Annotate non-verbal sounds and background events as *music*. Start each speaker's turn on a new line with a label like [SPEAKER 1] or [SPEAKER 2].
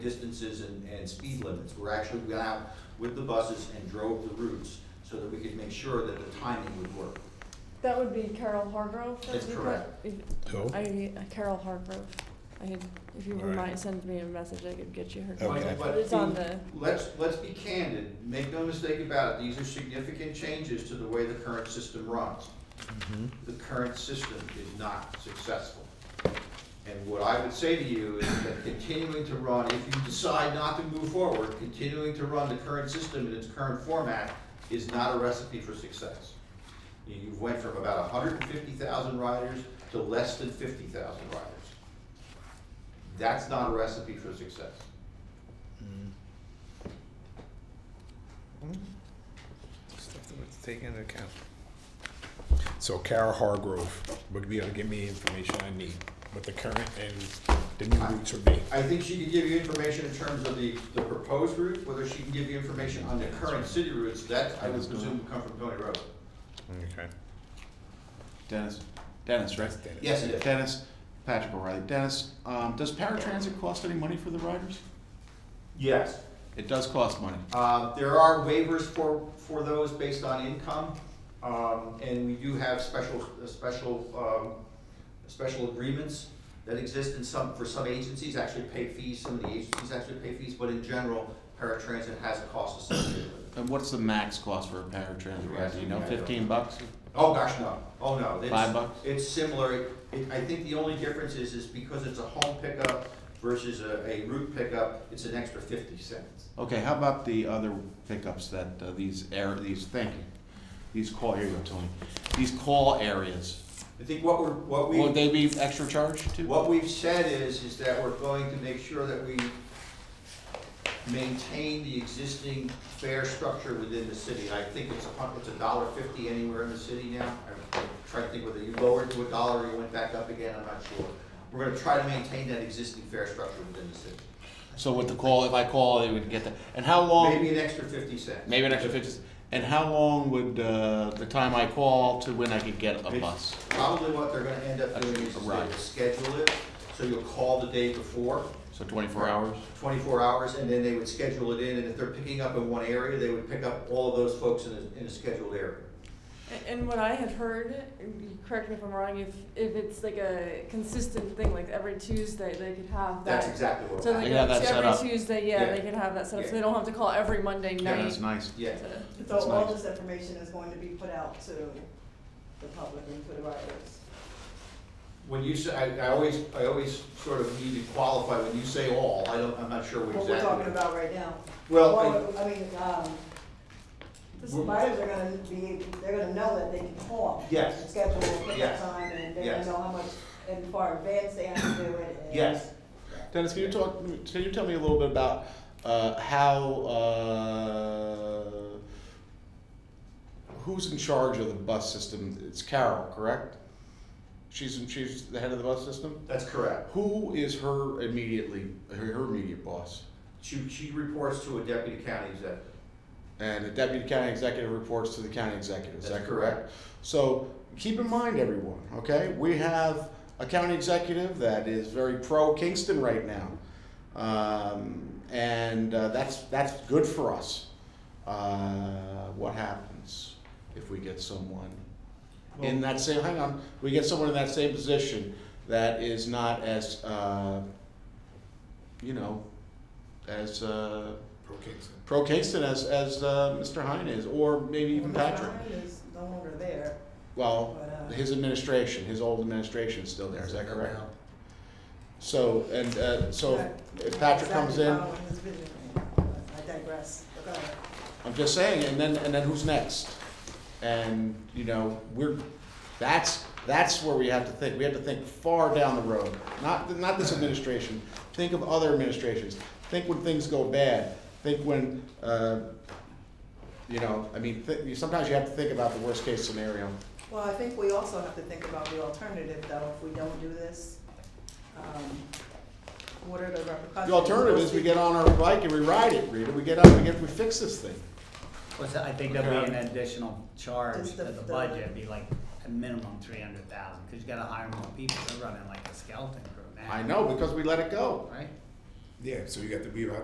[SPEAKER 1] distances and, and speed limits. We're actually went out with the buses and drove the routes so that we could make sure that the timing would work.
[SPEAKER 2] That would be Carol Hargrove. that
[SPEAKER 1] That's
[SPEAKER 2] we put-
[SPEAKER 1] correct.
[SPEAKER 2] if-
[SPEAKER 3] Who?
[SPEAKER 2] I, Carol Hargrove. I could, if you
[SPEAKER 3] All right.
[SPEAKER 2] remind, send me a message, I could get you her.
[SPEAKER 3] Okay.
[SPEAKER 2] contact.
[SPEAKER 1] But- but
[SPEAKER 2] It's on the,
[SPEAKER 1] Let's, let's be candid, make no mistake about it, these are significant changes to the way the current system runs. The current system is not successful. And what I would say to you is that continuing to run, if you decide not to move forward, continuing to run the current system in its current format is not a recipe for success. You- You went from about hundred and fifty thousand riders to less than fifty thousand riders. That's not a recipe for success.
[SPEAKER 3] Stuff that we have to take into account. So Kara Hargrove would be able to give me the information I need, what the current and the new routes would be.
[SPEAKER 1] I think she could give you information in terms of the, the proposed route, whether she can give you information on the current city routes, that I would presume would come from Tony Road.
[SPEAKER 3] Okay.
[SPEAKER 4] Dennis, Dennis, right?
[SPEAKER 3] That's Dennis.
[SPEAKER 1] Yes, it is.
[SPEAKER 4] Dennis, Patrick O'Reilly. Dennis, um, does paratransit cost any money for the riders?
[SPEAKER 1] Yes.
[SPEAKER 4] It does cost money.
[SPEAKER 1] Uh, there are waivers for, for those based on income, um, and we do have special, uh, special, um, special agreements that exist in some, for some agencies actually pay fees, some of the agencies actually pay fees, but in general, paratransit has a cost associated with it.
[SPEAKER 4] And what's the max cost for a paratransit ride? Do you know,
[SPEAKER 1] Yeah.
[SPEAKER 4] fifteen bucks?
[SPEAKER 1] Oh, gosh, no, oh, no. It's-
[SPEAKER 4] Five bucks?
[SPEAKER 1] It's similar, it, I think the only difference is, is because it's a home pickup versus a, a route pickup, it's an extra fifty cents.
[SPEAKER 4] Okay, how about the other pickups that, uh, these air, these, thank you, these call, here you go, Tony. These call areas,
[SPEAKER 1] I think what we're, what we.
[SPEAKER 4] would they be extra charge too?
[SPEAKER 1] What we've said is, is that we're going to make sure that we maintain the existing fare structure within the city. I think it's a hun, it's a dollar fifty anywhere in the city now. I'm trying to think whether you lowered to a dollar or you went back up again, I'm not sure. We're gonna try to maintain that existing fare structure within the city.
[SPEAKER 4] So with the call, if I call, they would get that. And how long?
[SPEAKER 1] Maybe an extra fifty cents.
[SPEAKER 4] Maybe an extra fifty. And how long would uh, the time I call to when I could get a bus?
[SPEAKER 1] Probably what they're gonna end up doing is they will
[SPEAKER 4] Right.
[SPEAKER 1] schedule it, so you'll call the day before.
[SPEAKER 4] So twenty-four hours.
[SPEAKER 1] 24 hours, and then they would schedule it in, and if they're picking up in one area, they would pick up all of those folks in a, in a scheduled area.
[SPEAKER 2] and- and what I had heard, you correct me if I'm wrong, if, if it's like a consistent thing, like every Tuesday, they could have
[SPEAKER 1] That's
[SPEAKER 2] that.
[SPEAKER 1] exactly what
[SPEAKER 2] So
[SPEAKER 1] we're
[SPEAKER 2] they
[SPEAKER 4] They
[SPEAKER 2] could,
[SPEAKER 4] have that
[SPEAKER 2] so
[SPEAKER 4] set up.
[SPEAKER 2] every Tuesday, yeah,
[SPEAKER 1] Yeah.
[SPEAKER 2] they could have that set up, so they
[SPEAKER 1] Yeah.
[SPEAKER 2] don't have to call every Monday night.
[SPEAKER 4] Yeah, that's nice.
[SPEAKER 1] Yeah,
[SPEAKER 2] to-
[SPEAKER 5] So
[SPEAKER 4] That's
[SPEAKER 5] all
[SPEAKER 4] nice.
[SPEAKER 5] this information is going to be put out to the public and to the writers.
[SPEAKER 1] when you say, I, I always, I always sort of need to qualify, when you say all, I don't, I'm not sure what
[SPEAKER 5] What we're talking
[SPEAKER 1] exactly.
[SPEAKER 5] about right now.
[SPEAKER 1] Well,
[SPEAKER 5] Well, I mean, um, the
[SPEAKER 1] We're-
[SPEAKER 5] writers are gonna be, they're gonna know that they can call.
[SPEAKER 1] Yes.
[SPEAKER 5] and Schedule a pickup
[SPEAKER 1] Yes.
[SPEAKER 5] time and they're
[SPEAKER 1] Yes.
[SPEAKER 5] gonna know how much, and far advance they have to do it.
[SPEAKER 4] *clears throat*
[SPEAKER 5] and-
[SPEAKER 1] Yes.
[SPEAKER 4] Dennis, can you talk? Can you tell me a little bit about uh, how uh, who's in charge of the bus system? It's Carol, correct? She's in, she's the head of the bus system.
[SPEAKER 1] that's correct.
[SPEAKER 4] Who is her immediately her, her immediate boss?
[SPEAKER 1] She, she reports to a deputy county executive.
[SPEAKER 4] And the deputy county executive reports to the county executive, is
[SPEAKER 1] That's
[SPEAKER 4] that correct? So keep in mind, everyone, okay, we have a county executive that is very pro Kingston right now. Um, and uh, that's, that's good for us. Uh, what happens if we get someone in that same, hang on, we get someone in that same position that is not as, uh, you know, as, uh,
[SPEAKER 3] Pro Kingston.
[SPEAKER 4] pro Kingston as as uh, Mr. Hine is, or maybe even
[SPEAKER 5] Well, Mr.
[SPEAKER 4] Patrick.
[SPEAKER 5] Ryan is no longer there,
[SPEAKER 4] Well,
[SPEAKER 5] but, uh,
[SPEAKER 4] his administration, his old administration is still there. Is that correct? So and uh, so if, if Patrick comes
[SPEAKER 5] Exactly
[SPEAKER 4] in,
[SPEAKER 5] following his vision right now, but I digress. Go ahead.
[SPEAKER 4] I'm just saying, and then and then who's next? And you know we're that's that's where we have to think. We have to think far down the road. Not not this administration. Think of other administrations. Think when things go bad. Think when. Uh, you know, I mean, th- sometimes you have to think about the worst case scenario.
[SPEAKER 5] Well, I think we also have to think about the alternative, though, if we don't do this. Um, What are the repercussions?
[SPEAKER 4] The alternative is we get on our bike and we ride it, Rita. We get up, we get, we fix this thing.
[SPEAKER 6] What's that? I think there'll be an additional charge
[SPEAKER 5] Just
[SPEAKER 6] to
[SPEAKER 5] the-
[SPEAKER 6] the
[SPEAKER 5] the-
[SPEAKER 6] budget, it'd be like a minimum three hundred thousand, cause you gotta hire more people, they're running like a skeleton crew now.
[SPEAKER 4] I know, because we let it go.
[SPEAKER 6] Right?
[SPEAKER 3] Yeah, so you got the, we have